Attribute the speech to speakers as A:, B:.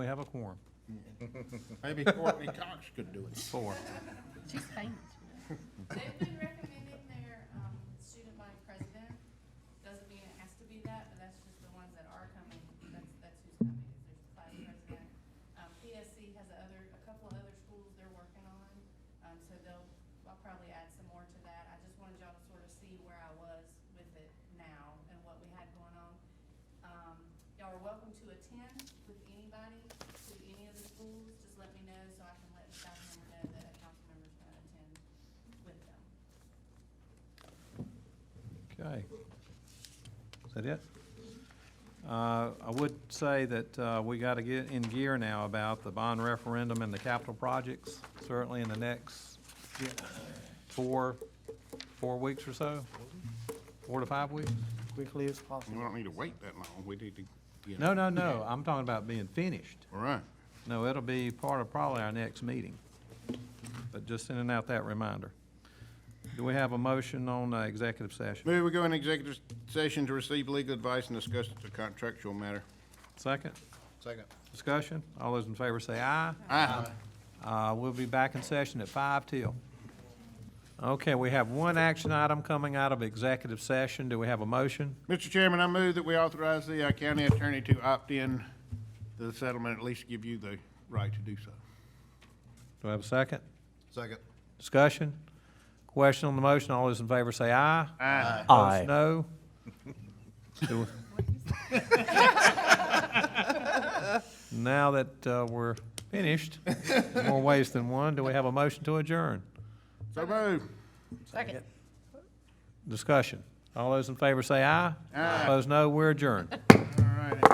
A: We have a quorum,
B: Maybe Courtney Cox could do it.
A: four.
C: She's famous.
D: They've been recommending their, um, student body president, doesn't mean it has to be that, but that's just the ones that are coming, that's, that's who's coming, is there's the vice president. Um, PSC has a other, a couple of other schools they're working on, um, so they'll, I'll probably add some more to that, I just wanted y'all to sort of see where I was with it now and what we had going on. Um, y'all are welcome to attend with anybody to any of the schools, just let me know so I can let the staff member know that a council member's gonna attend with
A: Okay.
D: them.
A: Is that it? Uh, I would say that uh, we got to get in gear now about the bond referendum and the capital projects, certainly in the next four, four weeks or so? Four to five weeks?
E: quickly as possible.
B: We don't need to wait that long. We need to, you know.
A: No, no, no, I'm talking about being finished.
B: All right.
A: No, it'll be part of probably our next meeting, but just sending out that reminder. Do we have a motion on uh, executive session?
B: Maybe we go in executive session to receive legal advice and discuss the contractual matter.
A: Second?
B: Second.
A: Discussion? All those in favor say aye.
B: Aye.
A: Uh, We'll be back in session at five till. Okay, we have one action item coming out of executive session. Do we have a motion?
B: Mr. Chairman, I move that we authorize the uh, county attorney to opt in to the settlement, at least give you the right to do so.
A: Do I have a second?
B: Second.
A: Discussion? Question on the motion? All those in favor say aye.
B: Aye.
A: Opposed, no. Do we- Now that uh, we're finished, more ways than one, do we have a motion to adjourn?
B: So moved.
C: Second.
A: Discussion. All those in favor say aye.
B: Aye.
A: Opposed, no. We're adjourned.